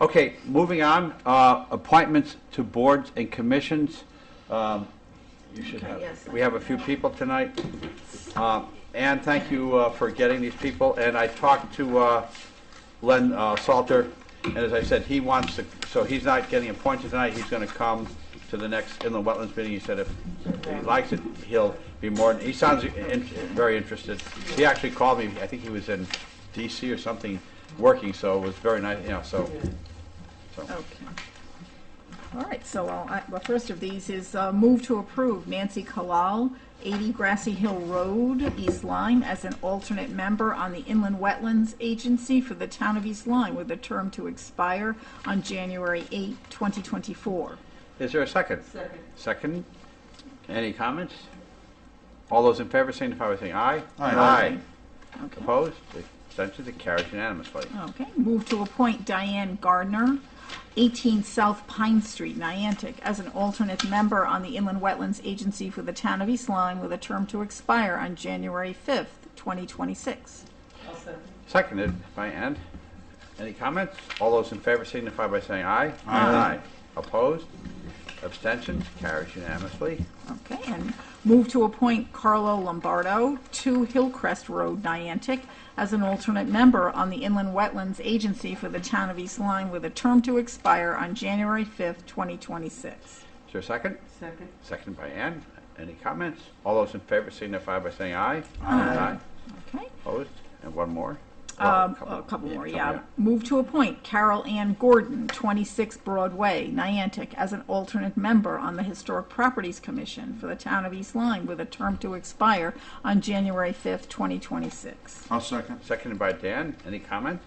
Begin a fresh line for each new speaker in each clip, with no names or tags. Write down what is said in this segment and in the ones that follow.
Okay, moving on, uh, appointments to boards and commissions. Um, You should have,
yes, I
we have a few people tonight. Um, Ann, thank you uh, for getting these people, and I talked to uh, Len uh, Salter, and as I said, he wants to, so he's not getting appointed tonight, he's gonna come to the next inland wetlands meeting, he said if he likes it, he'll be more, he sounds in- very interested. He actually called me, I think he was in DC or something, working, so it was very nice, you know, so, so.
Okay. All right, so I'll- I- the first of these is uh, move to approve Nancy Kalal, 80 Grassy Hill Road, East Lyme, as an alternate member on the Inland Wetlands Agency for the town of East Lyme, with a term to expire on January 8, 2024.
Is there a second? Second. Second. Any comments? All those in favor signify by saying aye. Aye.
Okay.
Opposed? Abstentions? It carries unanimously.
Okay, move to appoint Diane Gardner, 18 South Pine Street, Niantic, as an alternate member on the Inland Wetlands Agency for the town of East Lyme, with a term to expire on January 5th, 2026.
Seconded by Ann. Any comments? All those in favor signify by saying aye.
Aye.
Opposed? Abstentions? Carries unanimously.
Okay, and move to appoint Carlo Lombardo, 2 Hillcrest Road, Niantic, as an alternate member on the Inland Wetlands Agency for the town of East Lyme, with a term to expire on January 5th, 2026.
Is there a second?
Second,
Seconded by Ann. Any comments? All those in favor signify by saying aye. Aye.
Okay?
Opposed? And one more? Well,
Um, A couple more, yeah.
couple,
Move to appoint Carol Ann Gordon, 26 Broadway, Niantic, as an alternate member on the Historic Properties Commission for the town of East Lyme, with a term to expire on January 5th, 2026.
I'll second.
Seconded by Dan. Any comment?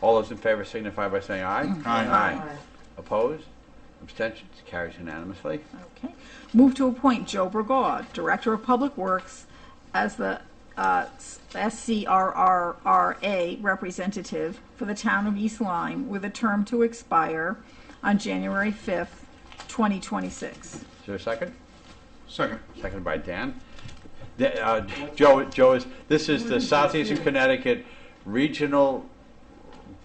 All those in favor signify by saying aye.
Aye.
Aye. Opposed? Abstentions? Carries unanimously.
Okay. Move to appoint Joe Bergaud, Director of Public Works, as the uh, SCRRRA representative for the town of East Lyme, with a term to expire on January 5th, 2026.
Is there a second?
Second.
Seconded by Dan. The- uh, Joe, Joe is, this is the Southeastern Connecticut Regional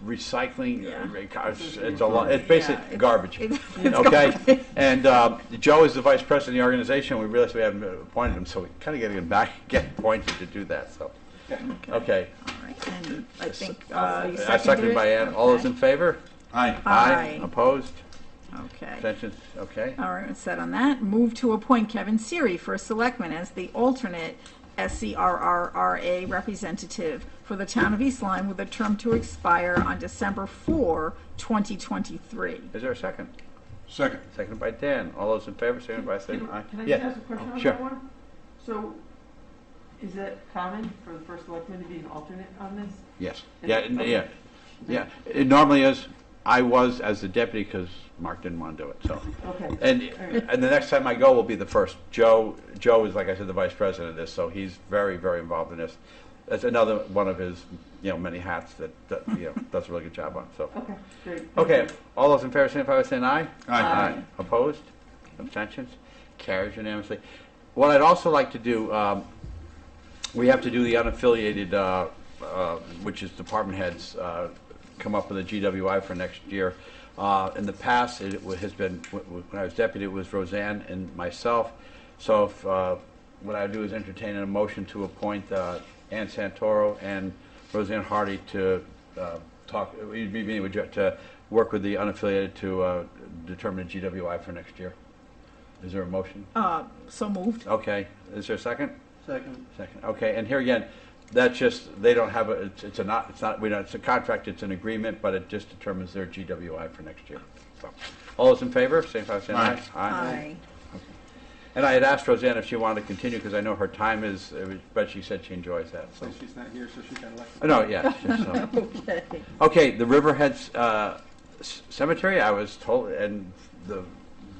Recycling. uh, It's it's a lot, it's
Yeah,
basically
it-
garbage.
it- it's
Okay? And um, Joe is the vice president of the organization. We realized we haven't appointed him, so we kind of getting him back, get appointed to do that, so. Okay.
All right, and I think uh, you
Uh, Seconded
seconded
by
it?
Ann. All those in favor?
Aye.
Aye.
Opposed?
Okay.
Abstentions? Okay.
All right, set on that. Move to appoint Kevin Siri for selectman as the alternate SCRRRA representative for the town of East Lyme with a term to expire on December 4, 2023.
Is there a second?
Second.
Seconded by Dan. All those in favor, signify by saying
can
aye.
can I
Yeah. Oh,
just ask a question on
Sure.
that one? So, is it common for the first selectman to be an alternate on this?
Yes.
Is
Yeah,
it-
n-
okay.
yeah, yeah. It normally is. I was as the deputy because Mark didn't want to do it, so.
Okay,
And,
Alright.
and the next time I go will be the first. Joe, Joe is, like I said, the vice president of this, so he's very, very involved in this. That's another one of his, you know, many hats that, that, you know, does a really good job on, so.
okay, great. thank
Okay,
you.
all those in favor, signify by saying aye.
Aye.
Opposed? Abstentions? Carries unanimously. What I'd also like to do, um, we have to do the unaffiliated, uh, uh, which is department heads, uh, come up with a GWI for next year. Uh, In the past, it w- has been, w- w- when I was deputy, it was Roseanne and myself. So if, uh, what I do is entertain a motion to appoint uh, Ann Santoro and Roseanne Hardy to uh, talk, you'd be meeting with, Jo- to work with the unaffiliated to uh, determine the GWI for next year. Is there a motion?
Uh, So moved.
Okay, is there a second? Second. Second, okay, and here again, that's just, they don't have, a. it's- it's a not, it's not, we don't, it's a contract, it's an agreement, but it just determines their GWI for next year. So, All those in favor, signify by saying aye. And I had asked Roseanne if she wanted to continue, because I know her time is, but she said she enjoys that, so. Uh,
So Oh, she's not here, so she got elected.
No, yeah, so.
Okay.
Okay, the Riverhead uh, c- Cemetery, I was told, and the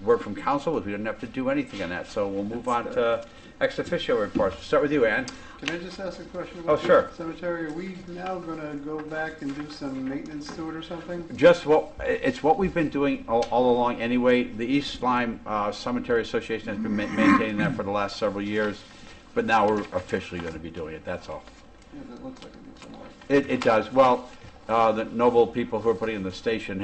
word from council was we didn't have to do anything on that, so we'll move on to ex officio reports. We'll Start with you, Ann.
Can I just ask a question
Oh,
about the
sure.
cemetery? Are we now gonna go back and do some maintenance to it or something?
Just what, it's what we've been doing all all along anyway. The East Lyme uh, Cemetery Association has been ma- maintaining that for the last several years, but now we're officially going to be doing it, that's all.
Yeah, that looks like it needs some work.
It it does, well, uh, the noble people who are putting in the station